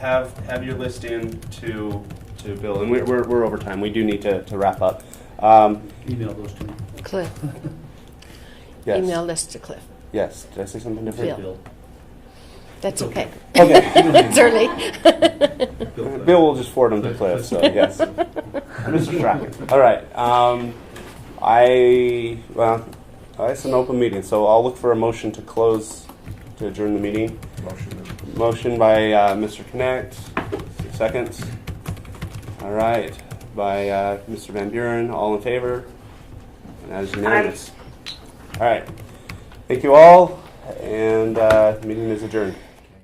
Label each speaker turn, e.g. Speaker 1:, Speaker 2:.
Speaker 1: have, have your list in to, to Bill, and we're, we're, we're over time, we do need to, to wrap up. Um,
Speaker 2: Email those to me.
Speaker 3: Cliff,
Speaker 1: yes.
Speaker 3: email this to Cliff.
Speaker 1: Yes, did I say something different?
Speaker 3: Bill. That's okay.
Speaker 1: Okay,
Speaker 3: It's early.
Speaker 1: Bill will just forward them to Cliff, so yes. Mr. Strachan, all right, um, I, well, uh, it's an open meeting, so I'll look for a motion to close, to adjourn the meeting. Motion by uh, Mr. Connect, seconds. All right, by uh, Mr. Van Buren, all in favor? And that is unanimous. All right, thank you all, and uh, meeting is adjourned.